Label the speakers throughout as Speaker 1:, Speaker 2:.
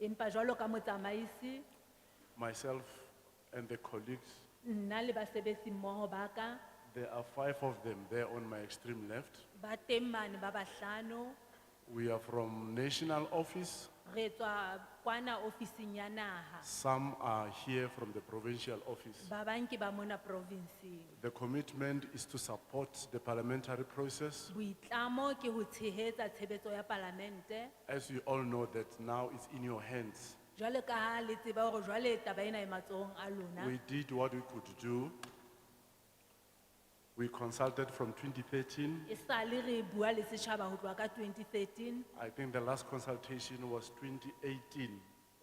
Speaker 1: Empa jwalo ka motsamaisi,
Speaker 2: myself and the colleagues,
Speaker 1: nna le basebetsi mmoho ba ka
Speaker 2: there are five of them there on my extreme left.
Speaker 1: ba teng mane ba bahlano
Speaker 2: We are from national office,
Speaker 1: re tswa kwana ofising ya naha.
Speaker 2: some are here from the provincial office.
Speaker 1: Ba bang ke ba mona province.
Speaker 2: The commitment is to support the parliamentary process.
Speaker 1: Boitlamo ke ho tshehetsa tshebetso ya palamente.
Speaker 2: As you all know that now it's in your hands.
Speaker 1: Jwalo ka ha le tseba hore jwale taba ena e matsohong a lona.
Speaker 2: We did what we could do. We consulted from 2013.
Speaker 1: E sale re bua le setjhaba ho tloha ka 2013
Speaker 2: I think the last consultation was 2018.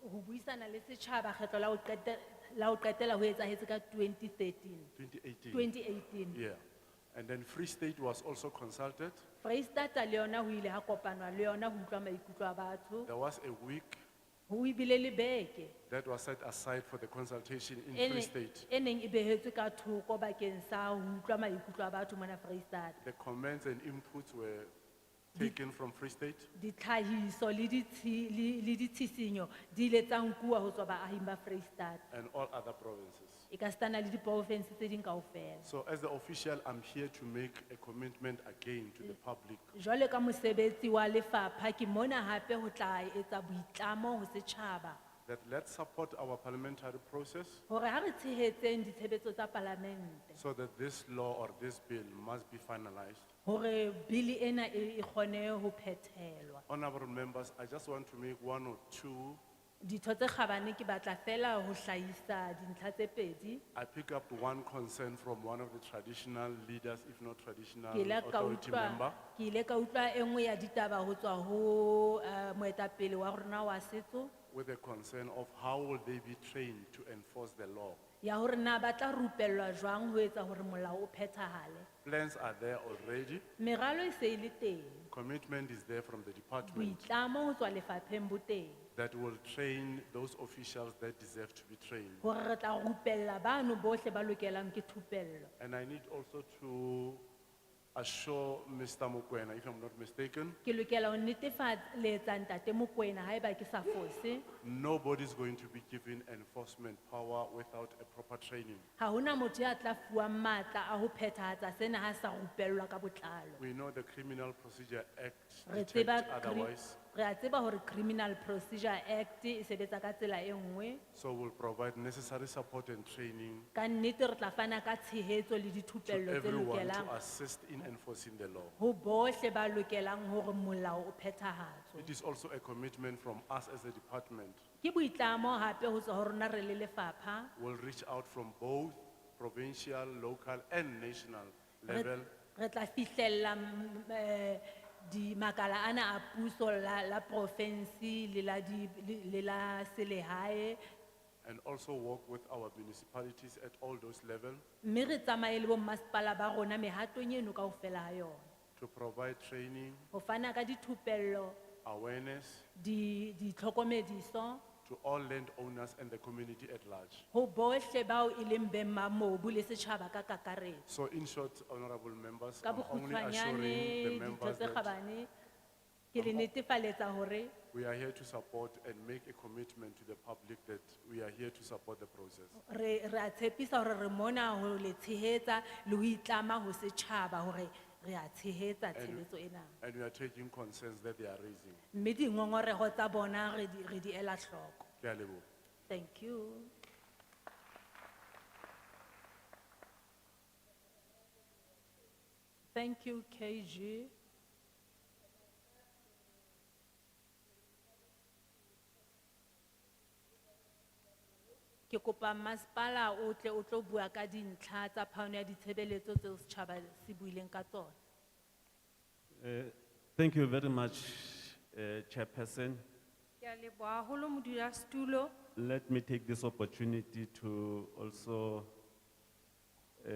Speaker 1: ho buisana le setjhaba kgetlo la ho qete- la ho qetela ho etsahetse ka 2013,
Speaker 2: 2018.
Speaker 1: 2018.
Speaker 2: Yeah. And then Free State was also consulted.
Speaker 1: Freistata le yona ho ile ha kopanwa le yona ho utlwa maikutlo a batho.
Speaker 2: There was a week
Speaker 1: Ho ibile le beke.
Speaker 2: that was set aside for the consultation
Speaker 1: e
Speaker 2: in Free
Speaker 1: neng-
Speaker 2: State.
Speaker 1: E neng e behetswe ka thoko bakeng sa ho utlwa maikutlo a batho mona Freistata.
Speaker 2: The comments and inputs were taken from Free State.
Speaker 1: Ditlhahiso le ditshi- le le ditshisinyo di ile tsa nkuwa ho tswa baahing ba Freistata.
Speaker 2: and all other provinces.
Speaker 1: E ka stana le diprovince tse ding kaofela.
Speaker 2: So as the official, I'm here to make a commitment again to the public.
Speaker 1: Jwale ka mosebetsi wa lefapha ke mona hape ho tla etsa boitlamo ho setjhaba.
Speaker 2: That let's support our parliamentary process
Speaker 1: Hore ha re tshehetseng ditshebetso tsa palamente.
Speaker 2: so that this law or this bill must be finalized.
Speaker 1: Hore bili ena e e kgone ho phethelwa.
Speaker 2: Honorable members, I just want to make one or two.
Speaker 1: Ditho tse kgabane ke batla fela ho hlahisa dintlha tse pedi.
Speaker 2: I pick up one concern from one of the traditional leaders, if not traditional
Speaker 1: Ke ile ka
Speaker 2: authority
Speaker 1: utlwa,
Speaker 2: member.
Speaker 1: ke ile ka utlwa e nngwe ya ditaba ho tswa ho eh, moetapele wa rona wa setso
Speaker 2: with a concern of how will they be trained to enforce the law.
Speaker 1: ya hore na ba tla rupellwa jwang ho etsa hore molao o phethahale.
Speaker 2: Plans are there already,
Speaker 1: Meralo e se e le teng.
Speaker 2: commitment is there from the department.
Speaker 1: boitlamo ho tswa lefapheng bo teng
Speaker 2: that will train those officials that deserve to be trained.
Speaker 1: hore re tla rupella bano bohle ba lokelang ke thupello
Speaker 2: And I need also to assure Mr. Mokoena, if I'm not mistaken,
Speaker 1: ke lokela ho netefaletsa ntate mokoena haeba ke sa fose
Speaker 2: nobody's going to be given enforcement power without a proper training.
Speaker 1: ha hona motho ya tla fuwang matla a ho phethahatsa sena ha sa rupellwa ka botlalo
Speaker 2: We know the Criminal Procedure
Speaker 1: re
Speaker 2: Act
Speaker 1: tseba
Speaker 2: detects
Speaker 1: cri-
Speaker 2: otherwise,
Speaker 1: re a tseba hore criminal procedure act e sebetsa ka tsela e nngwe
Speaker 2: so we'll provide necessary support and training
Speaker 1: ka nnete re tla fana ka tshehetso le
Speaker 2: to
Speaker 1: dithupello tse
Speaker 2: everyone
Speaker 1: lokelang
Speaker 2: to assist in enforcing the law.
Speaker 1: ho bohle ba lokelang hore molao o phethahatswe
Speaker 2: It is also a commitment from us as a department.
Speaker 1: ke boitlamo hape ho tswa ho rona re le lefapha
Speaker 2: We'll reach out from both provincial, local and national
Speaker 1: Re-
Speaker 2: level
Speaker 1: Re tla fihlella mm, eh, di makala ana a puso la, la province le la di, le- le la selehae.
Speaker 2: and also work with our municipalities at all those levels
Speaker 1: Mme re tsamaye le bo masepala ba rona mehatong eno kaofela ha yona.
Speaker 2: to provide training,
Speaker 1: Ho fana ka dithupello,
Speaker 2: awareness
Speaker 1: di, di tlhokomediso,
Speaker 2: to all landowners and the community at large.
Speaker 1: ho bohle bao e leng beng ba mobu le setjhaba ka kakaretso.
Speaker 2: So in short, honorable members,
Speaker 1: Ka
Speaker 2: I'm only assuring the
Speaker 1: bokgutshwanyane, ditho
Speaker 2: members
Speaker 1: tse
Speaker 2: that
Speaker 1: kgabane, ke le netefaletsa hore
Speaker 2: we are here to support and make a commitment to the public that we are here to support the process.
Speaker 1: Re, re a tshepisa hore re mona ho le tshehetsa le ho itlama ho setjhaba hore re a tshehetsa tshebetso ena.
Speaker 2: And we are taking concerns that they are raising.
Speaker 1: Mme dingongoreho tsa bona re di, re di ela hloko.
Speaker 2: Ke a leboha.
Speaker 1: Thank you. Thank you, KG. Ke kopa masepala o tle o tlo bua ka dintlha tsa phano ya ditshebeletso tseo setjhaba se buileng ka tsona.
Speaker 3: Uh, Thank you very much, uh, Chairperson.
Speaker 4: Ke a leboha haholo modulasetulo.
Speaker 3: Let me take this opportunity to also uh,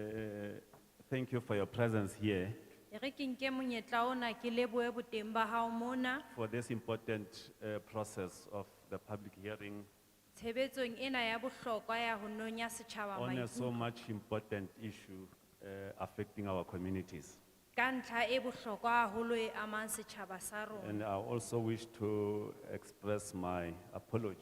Speaker 3: thank you for your presence here
Speaker 4: E re ke nke monyetla ona ke lebohe boteng ba hao mona.
Speaker 3: for this important uh, process of the public hearing
Speaker 4: Tshebetsong ena ya bohlokwa ya ho nonya setjhaba
Speaker 3: on a so
Speaker 4: maikutlo.
Speaker 3: much important issue uh, affecting our communities.
Speaker 4: ka ntlha e bohlokwa haholo e amang setjhaba sa rona
Speaker 3: And I also wish to express my apology